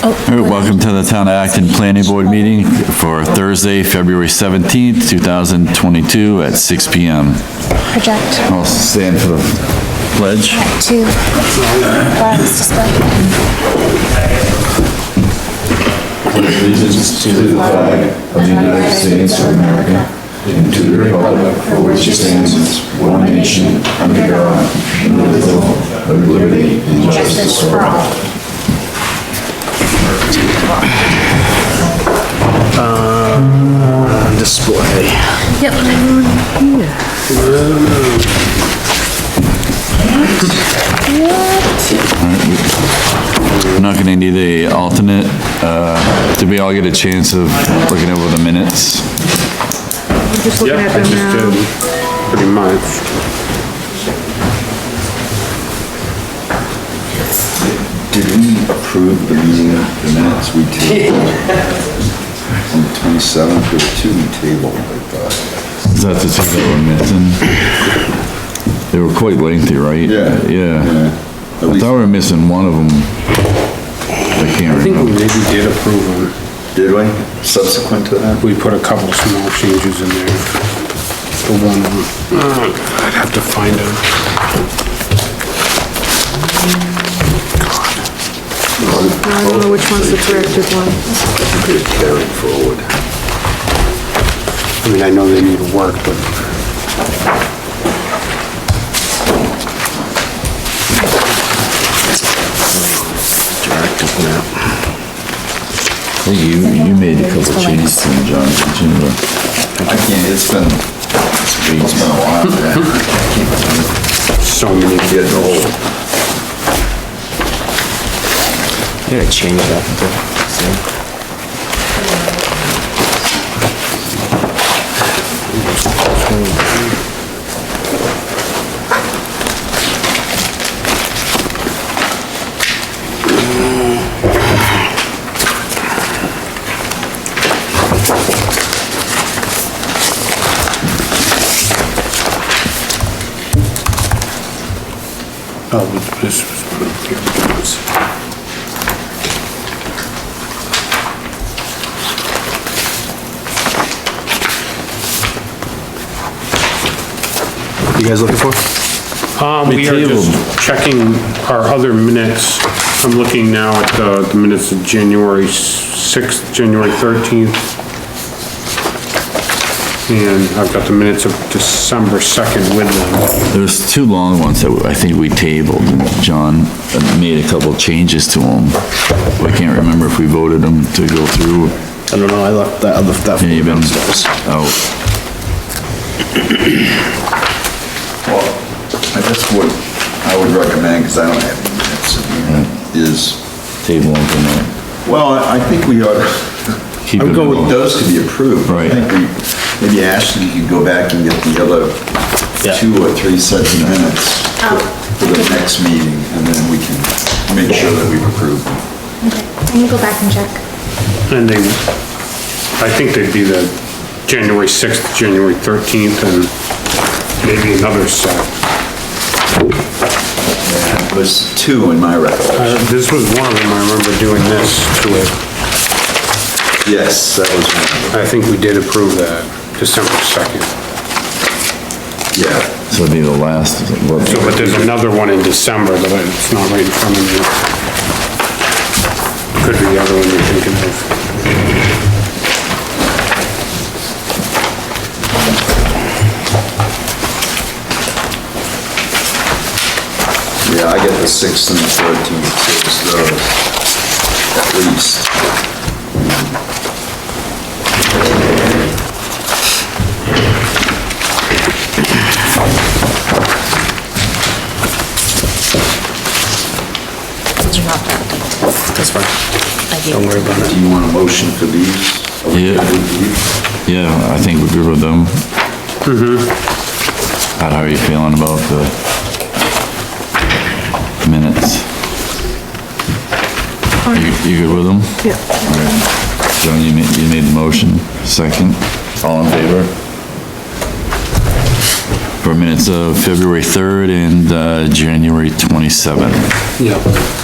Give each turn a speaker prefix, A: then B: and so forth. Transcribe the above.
A: Hey, Welcome to the Town of Acton Planning Board meeting for Thursday, February 17th, 2022 at 6 PM.
B: project
A: I'll stand for the pledge.
B: to glass display.
C: allegiance to the flag of the United States of America and to the republic for which it stands, one nation, under God, indivisible, with liberty and justice for all.
D: on display.
A: We're not gonna need a alternate. Uh, Did we all get a chance of looking over the minutes?
E: Just looking at them now.
D: Pretty much.
C: Did we approve the meeting the minutes we tabled? On the twenty-seventh, there were two we tabled, I thought.
A: Is that the two that were missing? They were quite lengthy, right?
C: Yeah.
A: Yeah. I
C: At least,
A: thought we were missing one of them. I
D: I
A: can't
D: think we
A: remember.
D: maybe did approve them.
C: did we, subsequent to that?
D: We put a couple small changes in there. The one, oh, God, I'd have to find them.
E: I don't know which one's the corrected one.
C: Carried forward.
D: I mean, I know they need work, but
A: I think You, you made a couple changes to the John, didn't you?
C: I can't, it's been, it's been a while, man. I can't remember.
D: so many.
C: Getting old.
F: I'm gonna change that.
D: Oh, but this was one of the other ones.
F: You guys looking for?
D: Um, we are just checking our other minutes. I'm looking now at uh, the the minutes of January 6th, January 13th. And I've got the minutes of December 2nd with them.
A: There's two long ones that I think we tabled, and John uh, made a couple changes to them. I can't remember if we voted them to go through.
F: I don't know, I left that other, that.
A: Yeah, you've been
F: downstairs.
A: out.
C: Well, I guess what I would recommend, because I don't have any minutes, in here, is,
A: Table them tonight.
C: well, I I think we ought to,
A: Keep
C: I
A: it
C: would go with
A: going.
C: those to be approved.
A: Right.
C: I think we- Maybe Ashley could go back and get the other
F: Yeah.
C: two or three sets of minutes for the next meeting, and then we can make sure that we've approved them.
B: Let me go back and check.
D: And they, I think they'd be the January 6th, January 13th, and maybe another set.
C: It was two in my record.
D: Uh, This was one of them, I remember doing this to it.
C: Yes, that was one of them.
D: I think we did approve that, December 2nd.
C: Yeah.
A: This will be the last. what-
D: So, but there's another one in December, but it's not right in front of me. Could be the other one you're thinking of.
C: Yeah, I get the sixth and the thirteenth, so it's those, at least.
G: Those are not that date.
F: That's fine.
G: I gave it to them.
C: Do you want a motion for these? Are we
A: Yeah.
C: good with these?
A: Yeah, I think we're good with them. Mm-hmm. How are you feeling about the minutes? You, you good with them?
E: Yeah,
A: All right. John, you made, you made the motion, second, all in favor? For minutes of February 3rd and, uh, January 27th.
D: Yeah.